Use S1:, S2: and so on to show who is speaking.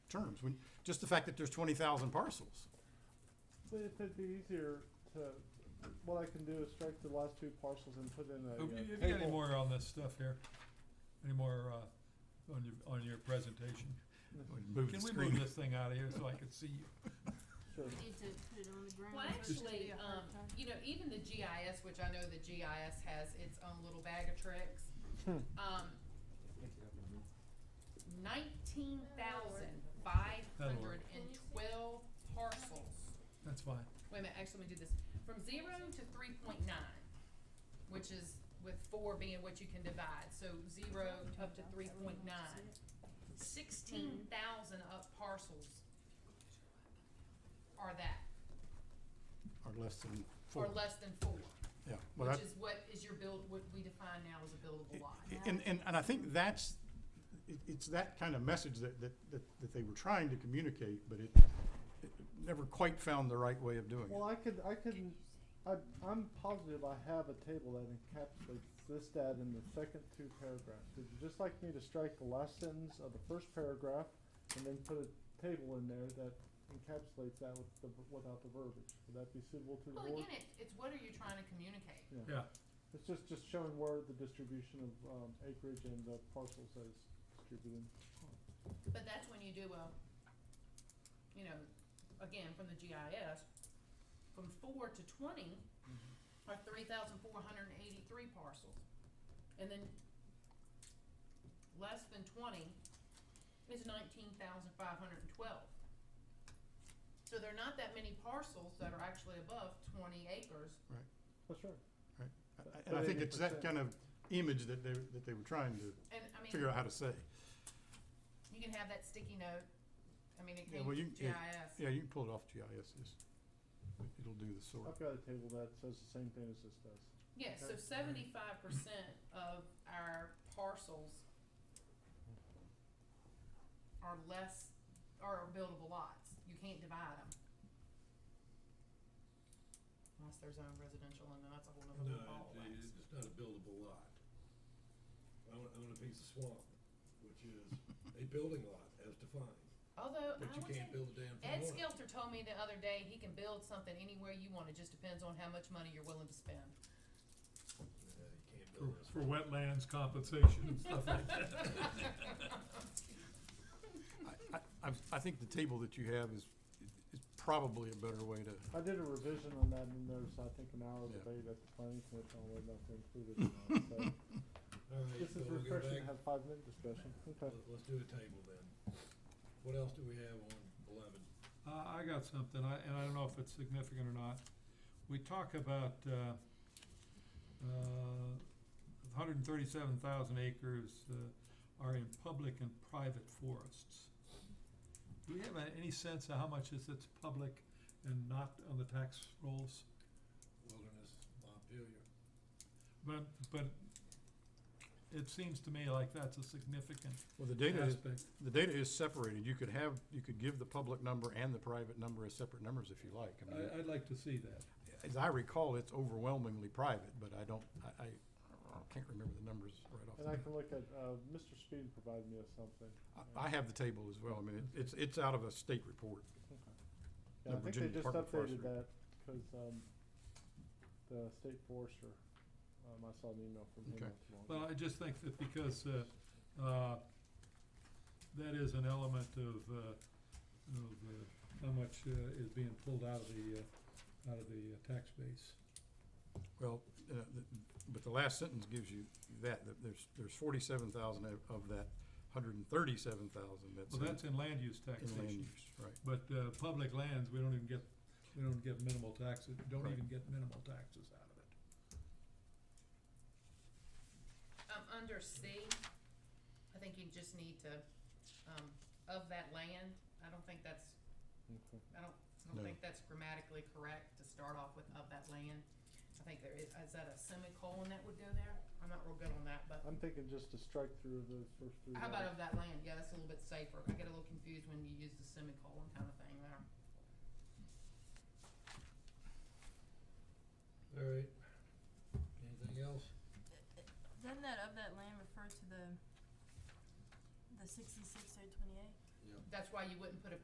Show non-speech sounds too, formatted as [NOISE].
S1: terms, when, just the fact that there's twenty thousand parcels.
S2: But if it'd be easier to, what I can do is strike the last two parcels and put in a
S3: Have you,
S2: uh,
S3: have you got any
S2: table.
S3: more on this stuff here? Any more, uh, on your, on your presentation?
S1: Move the
S3: Can we
S1: screen.
S3: move this thing out of here so I can see you?
S2: Sure.
S4: Need to put it on the ground.
S5: Well, actually, um, you know, even the GIS, which I know the GIS has its own little bag of tricks, um, nineteen thousand five hundred and twelve parcels.
S3: That's fine.
S5: Wait a minute, actually, let me do this. From zero to three point nine, which is with four being what you can divide, so zero up to three point nine. Sixteen thousand up parcels are that,
S1: Or less than
S5: or
S1: four,
S5: less than four.
S1: yeah. Well,
S5: Which
S1: that-
S5: is what is your build, what we define now as a buildable lot.
S1: And, and, and I think that's, it, it's that kind of message that, that, that, that they were trying to communicate, but it, it never quite found the right way of doing
S2: Well,
S1: it.
S2: I could, I could, I, I'm positive I have a table that encapsulates this data in the second two paragraphs. Would you just like me to strike the last sentence of the first paragraph and then put a table in there that encapsulates that with the, without the verbiage? Would that be suitable to the
S5: Well,
S2: board?
S5: again, it, it's what are you trying to communicate?
S3: Yeah,
S2: It's just, just showing where the distribution of, um, acreage and the parcels that is distributed.
S5: But that's when you do a, you know, again, from the GIS, from four to twenty are three thousand four hundred and eighty-three parcels. And then less than twenty is nineteen thousand five hundred and twelve. So there are not that many parcels that are actually above twenty acres
S2: Oh, sure.
S1: I- And I think it's that kind of image that they, that they were trying to
S5: And I mean,
S1: figure out how to say.
S5: you can have that sticky note, I mean, it
S1: Yeah,
S5: came
S1: well, you-
S5: from GIS.
S1: yeah, Yeah, you can pull it off GIS, just, it'll do the sort.
S2: I've got a table that says the same thing as this does.
S5: Yeah, so seventy-five percent of our parcels are less, are buildable lots, you can't divide them. Unless they're zoned residential, and that's a whole
S6: No,
S5: nother ball
S6: it-
S5: of wax.
S6: it- it's not a buildable lot. I want, I want a piece of swamp, which is a building lot as defined,
S5: Although,
S6: but
S5: I
S6: you
S5: would say,
S6: can't build a damn thing on
S5: Ed
S6: it.
S5: Skelter told me the other day, he can build something anywhere you want, it just depends on how much money you're willing to spend.
S6: Yeah, you can't
S3: for,
S6: build this.
S3: for wetlands compensation and stuff like that.
S1: I, I, I've- I think the table that you have is, is probably a better way to,
S2: I did a revision on that and there's, I think, an hour
S1: Yeah.
S2: debate at the planning commission on whether or not to include it or not,
S6: [LAUGHS]
S2: so.
S6: All right,
S2: This
S6: so
S2: is
S6: we'll go
S2: refreshing to
S6: back,
S2: have five minute discussion, okay.
S6: Let- let's do a table then. What else do we have on eleven?
S3: Uh, I got something, I, and I don't know if it's significant or not. We talk about, uh, uh, hundred and thirty-seven thousand acres, uh, are in public and private forests. Do we have a- any sense of how much is that's public and not on the tax rolls?
S6: Wilderness, Montpelier,
S3: But, but it seems to me like that's a significant
S1: well, the data is,
S3: aspect.
S1: the data is separated. You could have, you could give the public number and the private number as separate numbers if you like. I mean,
S3: I, I'd like to see that.
S1: as I recall, it's overwhelmingly private, but I don't, I, I I can't remember the numbers right off.
S2: And
S1: the
S2: I
S1: bat.
S2: can look at, uh, Mr. Speed provided me with something.
S1: I- I have the table as well. I mean, it- it's, it's out of a state report.
S2: Yeah, I
S1: The
S2: think
S1: Virginia
S2: they just
S1: Department of Forestry.
S2: updated that, cause, um, the state forester, um, I saw an email from him
S1: Okay.
S2: not too long ago.
S3: Well, I just think that because, uh, uh, that is an element of, uh, of, uh, how much, uh, is being pulled out of the, uh, out of the uh, tax base.
S1: Well, uh, the- but the last sentence gives you that, that there's, there's forty-seven thousand of that hundred and thirty-seven thousand that's
S3: Well, that's
S1: in
S3: in land use
S1: in land
S3: taxation,
S1: use, right.
S3: but, uh, public lands, we don't even get, we don't get minimal taxes, don't
S1: Right.
S3: even get minimal taxes out of it.
S5: Um, under C, I think you just need to, um, of that land, I don't think that's
S2: Okay.
S5: I don't, I
S1: No.
S5: don't think that's grammatically correct to start off with of that land. I think there is, is that a semicolon that would go there? I'm not real good on that, but
S2: I'm thinking just to strike through those first three.
S5: how
S2: lines.
S5: about of that land? Yeah, that's a little bit safer. I get a little confused when you use the semicolon kind of thing there.
S6: all right. Anything else?
S4: Doesn't that of that land refer to the, the sixty-six, eight twenty-eight?
S6: Yeah.
S5: That's why you wouldn't put a